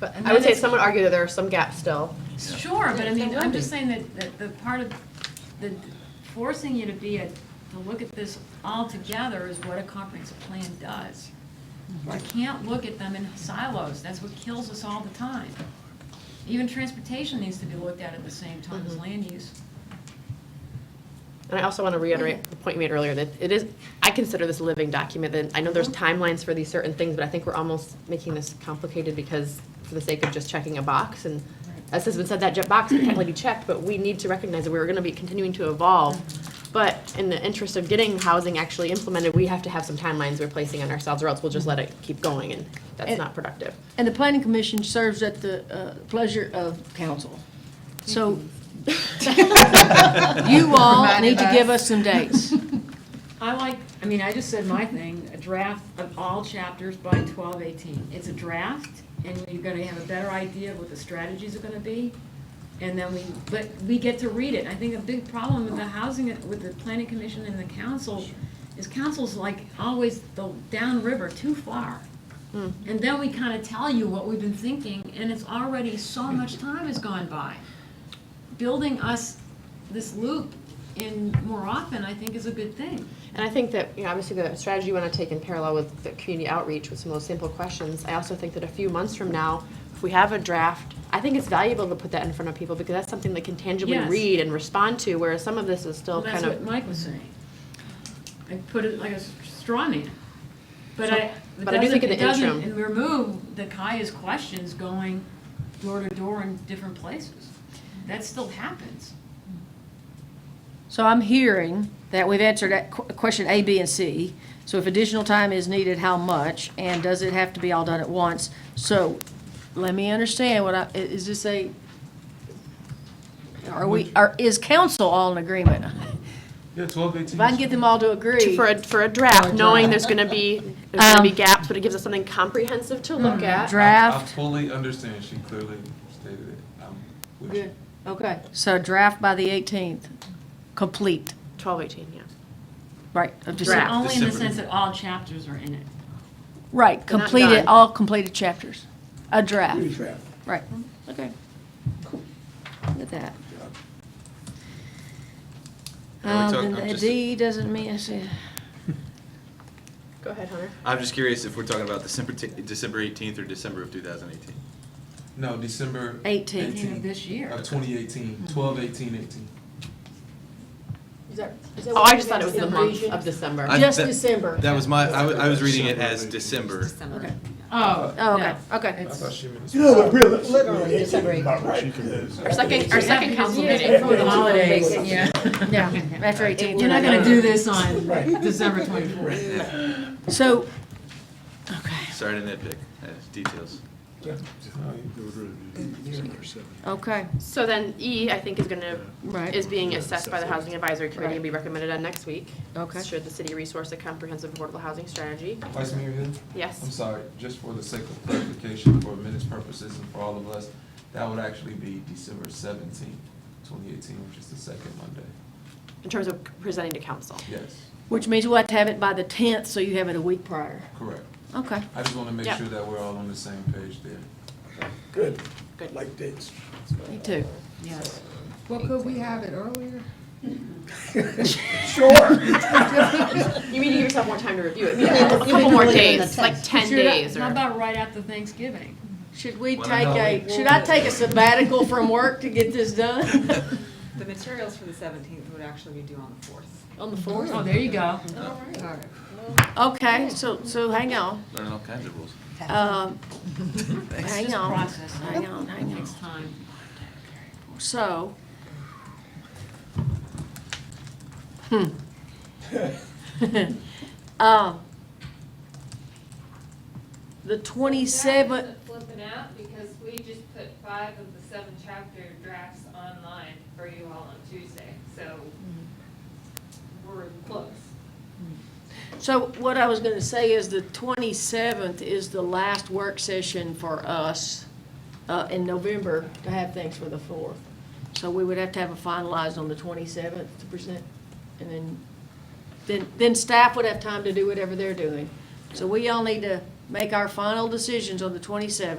but And I would say then it's- some would argue that there are some gaps still. Sure, but I mean, There I'm would just be. saying that, that the part of, the forcing you to be a, to look at this all together is what a comprehensive plan does. You can't look at them in silos, that's what kills us all the time. Even transportation needs to be looked at at the same time as Mhm. land use. And I also want to reiterate the point you made earlier, that it is, I consider this a living document, and I know there's Uh-huh. timelines for these certain things, but I think we're almost making this complicated because, for the sake of just checking a box, and as has been said, that jet box can technically be checked, but we need to recognize that we're going to be continuing to evolve. Uh-huh. But in the interest of getting housing actually implemented, we have to have some timelines we're placing on ourselves, or else we'll Mm-hmm. just let it keep going, and that's And- not productive. And the planning commission serves at the uh, pleasure of council. So you all need to give us some dates. I like, I mean, I just said my thing, a draft of all chapters by twelve eighteen. It's a draft, and you're gonna have a better idea of what the strategies are gonna be, and then we, but we get to read it. I think a big problem with the housing, with the planning commission and the council, is council's like always the downriver, too far. And then we kinda tell you what we've been thinking, and it's already, so much time has gone by building us this loop in more often, I think, is a good thing. And I think that, you know, obviously the strategy you want to take in parallel with the community outreach with some of those simple questions, I also think that a few months from now, if we have a draft, I think it's valuable to put that in front of people because that's something they can tangibly Yes. read and respond to, whereas some of this is still Well, kind that's of. what Mike was saying. I put it like a s- straw man. But So- I, it but I do doesn't, think in it the doesn't interim- remove the Kaya's questions going door to door in different places. That still happens. So I'm hearing that we've answered that qu- question A, B, and C. So if additional time is needed, how much? And does it have to be all done at once? So let me understand what I, i- is this a, are we, are, is council all in agreement? Yeah, twelve, eighteen. If I can get them all to to- agree, For a, for a draft, knowing there's gonna be, there's gonna be gaps, but it gives us something comprehensive to look Mm-hmm. at. I draft, fully understand, she clearly stated it, I'm with you. Good. okay, so draft by the 18th, complete, Twelve, eighteen, yeah. right, of So December. Only in the December. sense that all chapters are in it. Right, They're not completed, done. all completed chapters, a draft. Right, Mm-hmm. okay. Look at that. Are Um, we talk- then I'm the just- D doesn't mean, I see, Go ahead, Hunter. I'm just curious if we're talking about December, t- December 18th or December of 2018. No, December. 18th. 18th of this year. Of twenty eighteen, Mm-hmm. twelve, eighteen, eighteen. Oh, I just thought it was the month of December. I- just that- December. That was my, I wa- I was reading it as December December. Okay. Oh, Oh, okay, okay. I thought she meant. You know, but really, literally, it's about right. Our second, our second council meeting. Before the holidays, yeah. Yeah, after 18th. You're not gonna do this on Right. December twenty-fourth. So, okay, Sorry to nitpick, uh, details. okay, So then E, I think, is gonna, Right. is being assessed by the Housing Advisory Committee and be Right. recommended on next week. Okay. Should the city resource a comprehensive affordable housing strategy? Vice Mayor Hill? I'm Yes. sorry, just for the sake of clarification, for minutes purposes and for all of us, that would actually be December seventeenth, twenty eighteen, which is the second Monday. In terms of presenting to council. Yes, which means we'll have to have it by the 10th, so you have it a week prior. correct. Okay, I just want to make Yeah. sure that we're all on the same page there. Good, Good. like dates. me too. Yes. Well, could we have it earlier? You mean to give yourself more time to review it? A couple more days, like ten Should I- days How or, about right after Thanksgiving? Should we Well, take no, a, should I take a sabbatical from work to get this done? The materials for the seventeenth would actually be due on the fourth. Mm-hmm. On the 4th? Oh, there you go. Okay, so, so hang on, Learning all kinds of rules. um, It's hang just on, process. hang on, hang on. Takes time. So. Hmm. Um, The twenty-seventh, Flipping out because we just put five of the seven chapter drafts online for you all on Tuesday, so we're close. so what I was gonna say is the twenty-seventh is the last work session for us, uh, in November to have things for the fourth. So we would have to have it finalized on the twenty-seventh to present, and then, then, then staff would have time to do whatever they're doing. So we all need to make our final decisions on the twenty-seventh.